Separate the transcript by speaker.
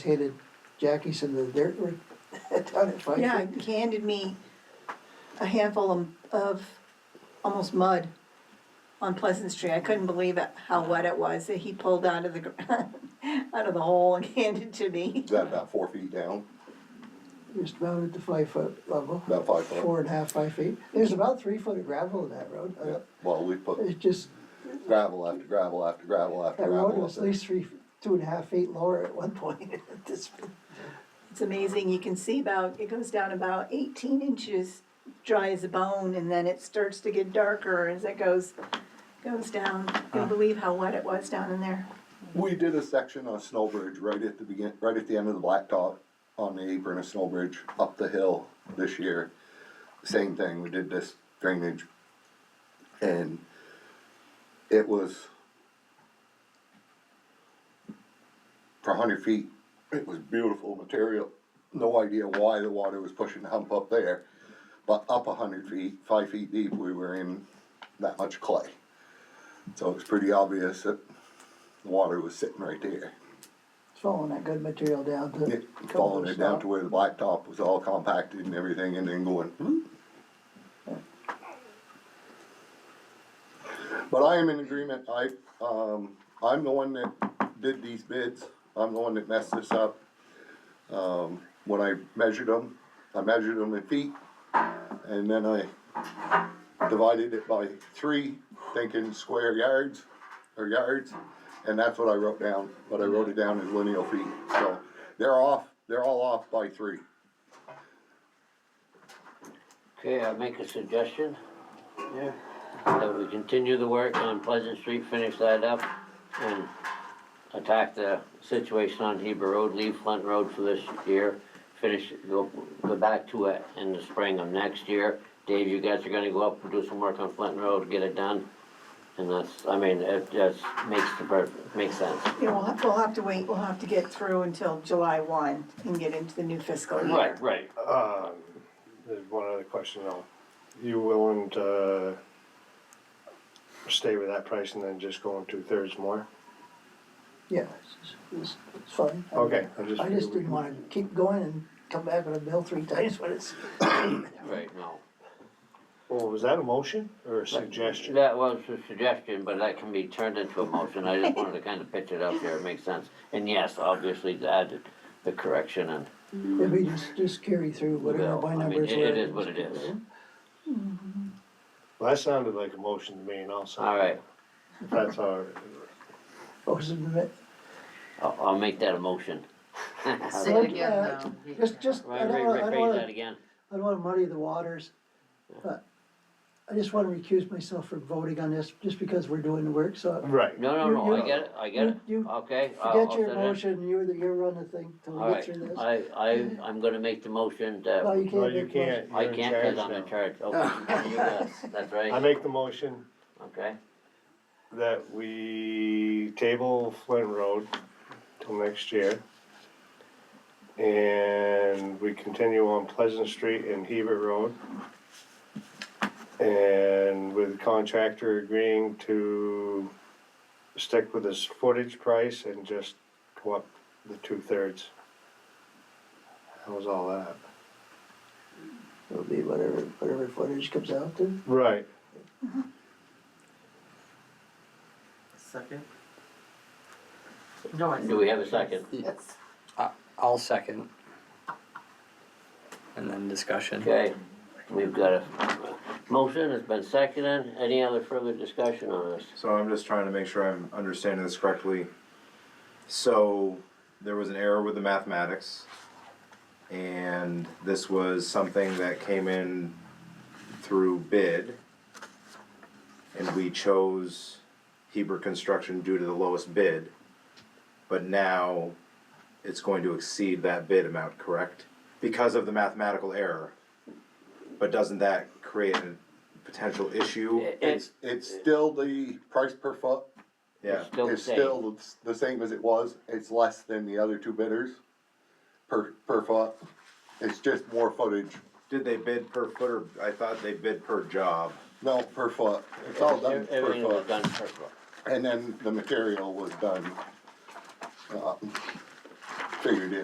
Speaker 1: handed Jackie some of the dirt work down at Fine
Speaker 2: Yeah,
Speaker 1: Creek.
Speaker 2: he handed me a handful of, of almost mud on Pleasant Street. I couldn't believe it, how wet it was that he pulled out of the, gr- out of the hole and handed to me.
Speaker 3: Is that about four feet down?
Speaker 1: Just about at the five foot level.
Speaker 3: About five foot.
Speaker 1: Four and a half, five feet. There's about three foot of gravel in that road. Uh,
Speaker 3: Yeah, well, we put
Speaker 1: It's just,
Speaker 3: gravel after gravel after gravel after
Speaker 1: that road
Speaker 3: gravel. up
Speaker 1: was at
Speaker 3: there.
Speaker 1: least three, two and a half feet lower at one point. This-
Speaker 2: It's amazing, you can see about, it goes down about eighteen inches, dry as a bone, and then it starts to get darker as it goes, goes down. Can't believe how wet it was down in there.
Speaker 3: We did a section on Snowbridge right at the begin, right at the end of the blacktop on the apron of Snowbridge up the hill this year. Same thing, we did this drainage. And it was for hundred feet, it was beautiful material. No idea why the water was pushing the hump up there. But up hundred feet, five feet deep, we were in that much clay. So it was pretty obvious that the water was sitting right there.
Speaker 1: It's Following that good material down to.
Speaker 3: It Following it down to where the blacktop was all compacted and everything and then going, hmm. But I am in agreement, I, um, I'm the one that did these bids, I'm the one that messed this up. Um, when I measured them, I measured them in feet, and then I divided it by three, thinking square yards or yards, and that's what I wrote down, but I wrote it down as lineal feet, so they're off, they're all off by three.
Speaker 4: Okay, I make a suggestion. Yeah. That we continue the work on Pleasant Street, finish that up, and attack the situation on Heber Road, leave Flint Road for this year. Finish, go, go back to it in the spring of next year. Dave, you guys are gonna go up and do some work on Flint Road, get it done. And that's, I mean, it just makes the, per- makes sense.
Speaker 2: Yeah, we'll have, we'll have to wait, we'll have to get through until July one and get into the new fiscal year.
Speaker 4: Right, right.
Speaker 5: Um, there's one other question though. You willing to stay with that price and then just go on two thirds more?
Speaker 1: Yeah, it's, it's, it's fine. I mean,
Speaker 5: Okay, I just.
Speaker 1: I just didn't wanna keep going and come back with a bill three times, but it's,
Speaker 4: Right, no.
Speaker 5: Well, was that a motion or a suggestion?
Speaker 4: That was a suggestion, but that can be turned into a motion, I just wanted to kind of pitch it up there, it makes sense. And yes, obviously, to add the- the correction and,
Speaker 1: if we just, just carry through whatever
Speaker 4: Well,
Speaker 1: my
Speaker 4: I mean,
Speaker 1: numbers
Speaker 4: it-
Speaker 1: were.
Speaker 4: it is what it is.
Speaker 5: Well, that sounded like a motion to me and I'll second it.
Speaker 4: Alright.
Speaker 5: If That's all right.
Speaker 1: Motion to ma-
Speaker 4: I'll, I'll make that a motion.
Speaker 6: Say it again
Speaker 1: Uh,
Speaker 6: now.
Speaker 1: Just, just, I
Speaker 4: Right,
Speaker 1: don't
Speaker 4: right,
Speaker 1: wanna, I don't
Speaker 4: rephrase that
Speaker 1: wanna,
Speaker 4: again,
Speaker 1: I don't wanna muddy the waters, but I just wanna recuse myself from voting on this, just because we're doing the work, so.
Speaker 5: Right.
Speaker 4: no, no,
Speaker 1: You-
Speaker 4: no,
Speaker 1: you-
Speaker 4: I get it, I get it,
Speaker 1: you-
Speaker 4: okay, I'll, I'll
Speaker 1: Forget
Speaker 4: set
Speaker 1: your
Speaker 4: it.
Speaker 1: motion, you're the, you run the thing till we get
Speaker 4: Alright,
Speaker 1: through this.
Speaker 4: I, I, I'm gonna make the motion
Speaker 1: No,
Speaker 4: that,
Speaker 1: you
Speaker 5: No,
Speaker 1: can't
Speaker 5: you
Speaker 1: make motion.
Speaker 5: can't.
Speaker 4: I
Speaker 5: You're in
Speaker 4: can't, cause
Speaker 5: charge
Speaker 4: I'm in
Speaker 5: now.
Speaker 4: charge, okay, you guys, that's
Speaker 5: I
Speaker 4: right,
Speaker 5: make the motion
Speaker 4: okay,
Speaker 5: that we table Flint Road till next year. And we continue on Pleasant Street and Hebert Road. And with contractor agreeing to stick with his footage price and just go up the two thirds. That was all that.
Speaker 1: It'll be whatever, whatever footage comes out to.
Speaker 5: Right.
Speaker 6: Second? No, I.
Speaker 4: do we have a second?
Speaker 6: Yes.
Speaker 7: I'll second. And then discussion.
Speaker 4: Okay, we've got a motion, it's been seconded, any other further discussion on this?
Speaker 8: So I'm just trying to make sure I'm understanding this correctly. So there was an error with the mathematics, and this was something that came in through bid, and we chose Heber Construction due to the lowest bid, but now it's going to exceed that bid amount, correct? Because of the mathematical error. But doesn't that create a potential issue?
Speaker 4: It-
Speaker 3: It's, it's still the price per foot,
Speaker 8: Yeah.
Speaker 4: still the
Speaker 3: it's
Speaker 4: same.
Speaker 3: still the same as it was, it's less than the other two bidders per, per foot. It's just more footage,
Speaker 8: Did they bid per foot or, I thought they bid per job.
Speaker 3: no, per foot, it's all done per
Speaker 4: Everything was
Speaker 3: foot.
Speaker 4: done per foot.
Speaker 3: And then the material was done, um, uh, figured in.